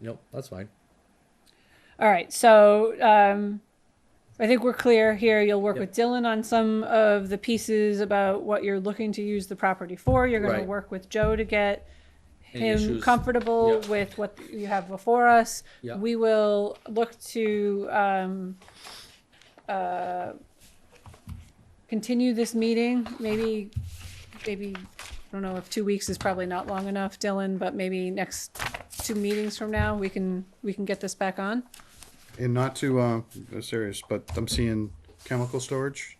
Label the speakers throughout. Speaker 1: Nope, that's fine.
Speaker 2: All right, so um, I think we're clear here. You'll work
Speaker 1: Yep.
Speaker 2: with Dylan on some of the pieces about what you're looking to use the property for. You're going
Speaker 1: Right.
Speaker 2: to work with Joe to get
Speaker 1: Any
Speaker 2: him
Speaker 1: issues?
Speaker 2: comfortable
Speaker 1: Yep.
Speaker 2: with what you have before us.
Speaker 1: Yep.
Speaker 2: We will look to um, uh, continue this meeting, maybe, maybe, I don't know if two weeks is probably not long enough, Dylan, but maybe next two meetings from now, we can, we can get this back on.
Speaker 3: And not to uh, go serious, but I'm seeing chemical storage.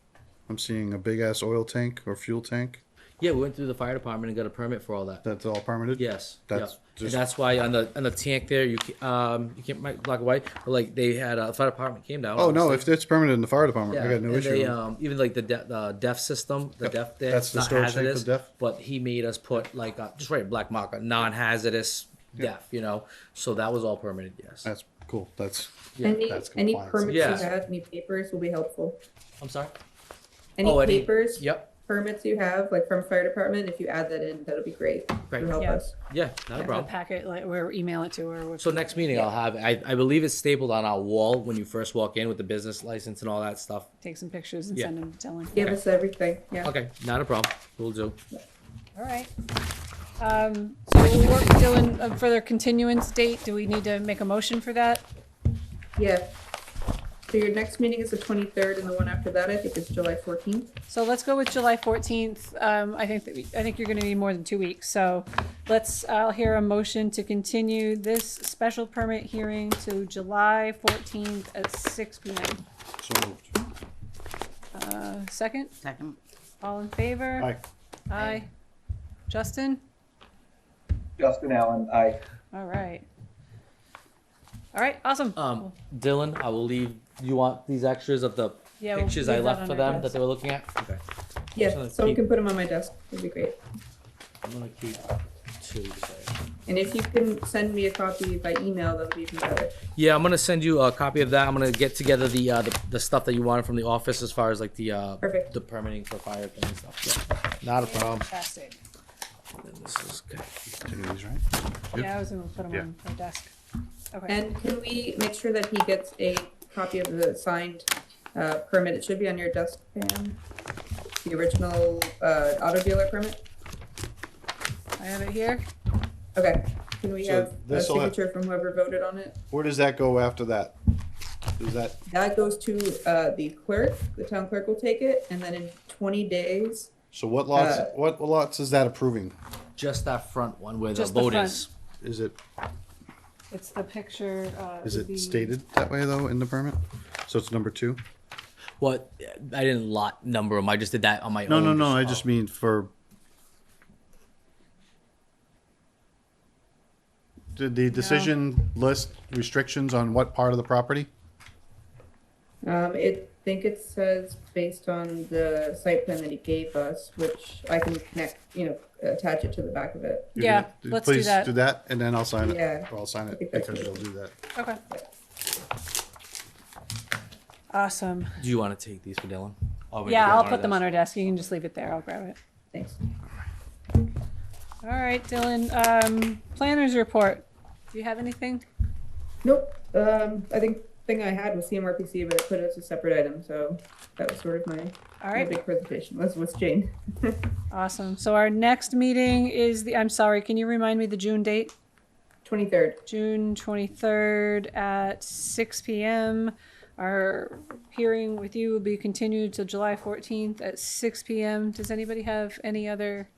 Speaker 3: I'm seeing a big ass oil tank or fuel tank.
Speaker 1: Yeah, we went through the fire department and got a permit for all that.
Speaker 3: That's all permitted.
Speaker 1: Yes,
Speaker 3: That's
Speaker 1: yeah.
Speaker 3: just-
Speaker 1: and that's why on the on the tank there you ca- um you can't might block away, but like they had a fire department came down.
Speaker 3: Oh no,
Speaker 1: obviously.
Speaker 3: if it's permitted in the fire department, I got no
Speaker 1: and
Speaker 3: issue.
Speaker 1: They,
Speaker 3: with it.
Speaker 1: um, even like the de- the deaf system, the
Speaker 3: Yep,
Speaker 1: deaf there,
Speaker 3: that's the
Speaker 1: not
Speaker 3: storage tank for
Speaker 1: hazardous.
Speaker 3: the deaf.
Speaker 1: But he made us put like a, just write a black marker, non-hazardous deaf, you know. So that was all permitted. Yes.
Speaker 3: that's cool. That's
Speaker 4: Any,
Speaker 3: that's
Speaker 4: any
Speaker 3: compliance.
Speaker 4: permits you
Speaker 1: Yeah.
Speaker 4: have, any papers will be helpful.
Speaker 1: I'm sorry.
Speaker 4: Any
Speaker 1: Oh, any-
Speaker 4: papers,
Speaker 1: Yep.
Speaker 4: permits you have, like from fire department, if you add that in, that'll be great.
Speaker 1: Great.
Speaker 4: It'll help
Speaker 2: Yeah.
Speaker 4: us.
Speaker 1: Yeah. Not a
Speaker 2: A
Speaker 1: problem.
Speaker 2: packet, like, or email it to her.
Speaker 1: So next meeting I'll have. I, I believe it's stapled on our wall when you first walk in with the business license and all that stuff.
Speaker 2: Take some pictures and
Speaker 1: Yeah.
Speaker 2: send them to Dylan.
Speaker 4: Give
Speaker 1: Okay.
Speaker 4: us everything, yeah.
Speaker 1: Okay. Not a problem. We'll do.
Speaker 2: All right. Um, so we'll work, Dylan, uh, for their continuance date. Do we need to make a motion for that?
Speaker 4: Yeah. So your next meeting is the twenty-third and the one after that, I think is July fourteenth.
Speaker 2: So let's go with July fourteenth. Um, I think that we, I think you're gonna need more than two weeks, so let's, I'll hear a motion to continue this special permit hearing to July fourteenth at six P M.
Speaker 3: So moved.
Speaker 2: Uh, second,
Speaker 5: Second.
Speaker 2: all in favor?
Speaker 3: Aye.
Speaker 2: Aye. Justin?
Speaker 6: Justin Allen, aye.
Speaker 2: All right. All right, awesome.
Speaker 1: Um, Dylan, I will leave. You want these extras of the
Speaker 2: Yeah, we'll
Speaker 1: pictures
Speaker 2: leave
Speaker 1: I
Speaker 2: that
Speaker 1: left
Speaker 2: on
Speaker 1: for
Speaker 2: our
Speaker 1: them
Speaker 2: desk.
Speaker 1: that they were looking at? Okay.
Speaker 4: Yeah,
Speaker 1: Awesome.
Speaker 4: so we
Speaker 1: Keep-
Speaker 4: can put them on my desk, it'd be great.
Speaker 1: I'm gonna keep two. Sorry.
Speaker 4: And if you can send me a copy by email, that would be even better.
Speaker 1: Yeah, I'm gonna send you a copy of that. I'm gonna get together the uh, the, the stuff that you wanted from the office as far as like the uh,
Speaker 4: Perfect.
Speaker 1: the permitting for fire thing and stuff. Yeah. Not a problem.
Speaker 2: Fantastic.
Speaker 1: This is good.
Speaker 3: Take these, right?
Speaker 2: Yeah, I was gonna put them
Speaker 3: Yeah.
Speaker 2: on my desk. Okay,
Speaker 4: And can we make sure that he gets a copy of the signed uh, permit? It should be on your desk, Pam. The original uh, auto dealer permit?
Speaker 2: I have it here.
Speaker 4: Okay, can we
Speaker 3: So
Speaker 4: have a
Speaker 3: this'll have-
Speaker 4: signature from whoever voted on it?
Speaker 3: Where does that go after that? Is that
Speaker 4: That goes to uh, the clerk, the town clerk will take it, and then in twenty days,
Speaker 3: so? What lots?
Speaker 4: Uh,
Speaker 3: what lots is that approving?
Speaker 1: Just that front one where
Speaker 2: Just the
Speaker 1: the boat
Speaker 2: front.
Speaker 1: is.
Speaker 3: Is it
Speaker 2: It's the picture, uh.
Speaker 3: is
Speaker 2: the-
Speaker 3: it stated that way though in the permit? So it's number two.
Speaker 1: Well, I didn't lot number them. I just did that on my
Speaker 3: No,
Speaker 1: own.
Speaker 3: no, no. I just mean for. Did the decision list restrictions on what part of the property?
Speaker 4: um, it, think it says based on the site plan that he gave us, which I can connect, you know, attach it to the back of it.
Speaker 3: You
Speaker 2: Yeah,
Speaker 3: can-
Speaker 2: let's do that.
Speaker 3: Please do that, and then I'll sign it.
Speaker 4: Yeah.
Speaker 3: Or I'll sign it
Speaker 4: think that's
Speaker 3: because you'll
Speaker 4: good.
Speaker 3: do that.
Speaker 2: Okay. Awesome.
Speaker 1: Do you want to take these for Dylan? Or we
Speaker 2: Yeah,
Speaker 1: can
Speaker 2: I'll
Speaker 1: do
Speaker 2: put them
Speaker 1: desk?
Speaker 2: on our desk. You can just leave it there. I'll grab it.
Speaker 4: Thanks.
Speaker 2: All right, Dylan, um, planners report. Do you have anything?
Speaker 4: Nope. Um, I think thing I had was CMRPC, but it put it as a separate item, so that was sort of my,
Speaker 2: All
Speaker 4: my
Speaker 2: right,
Speaker 4: big presentation. Was was Jane.
Speaker 2: awesome. So our next meeting is the, I'm sorry, can you remind me the June date?
Speaker 4: Twenty third.
Speaker 2: June twenty-third at six PM. Our hearing with you will be continued till July fourteenth at six PM. Does anybody have any other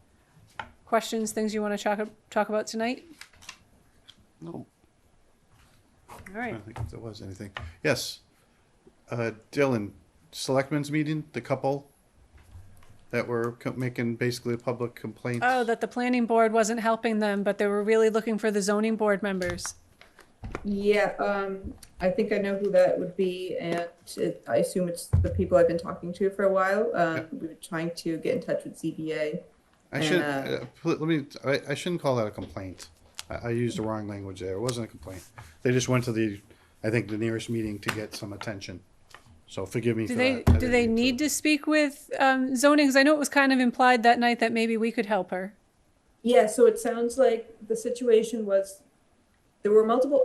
Speaker 2: questions, things you want to talk, talk about tonight?
Speaker 5: No.
Speaker 2: All
Speaker 3: I
Speaker 2: right.
Speaker 3: don't think if there was anything. Yes. Uh, Dylan, selectmen's meeting, the couple that were co- making basically a public complaint.
Speaker 2: Oh, that the planning board wasn't helping them, but they were really looking for the zoning board members.
Speaker 4: Yeah. Um, I think I know who that would be, and it, I assume it's the people I've been talking to for a while. Um,
Speaker 3: Yep.
Speaker 4: We were trying to get in touch with ZBA.
Speaker 3: I should
Speaker 4: and,
Speaker 3: uh, pl- let me. I, I shouldn't call that a complaint. I, I used the wrong language there. It wasn't a complaint. They just went to the, I think, the nearest meeting to get some attention. So forgive me.
Speaker 2: Do
Speaker 3: for
Speaker 2: they,
Speaker 3: that.
Speaker 2: do
Speaker 3: I didn't
Speaker 2: they
Speaker 3: mean
Speaker 2: need to speak with, um, zoning? 'Cause I know it was kind of implied that night that maybe we could help her.
Speaker 4: Yeah. So it sounds like the situation was there were multiple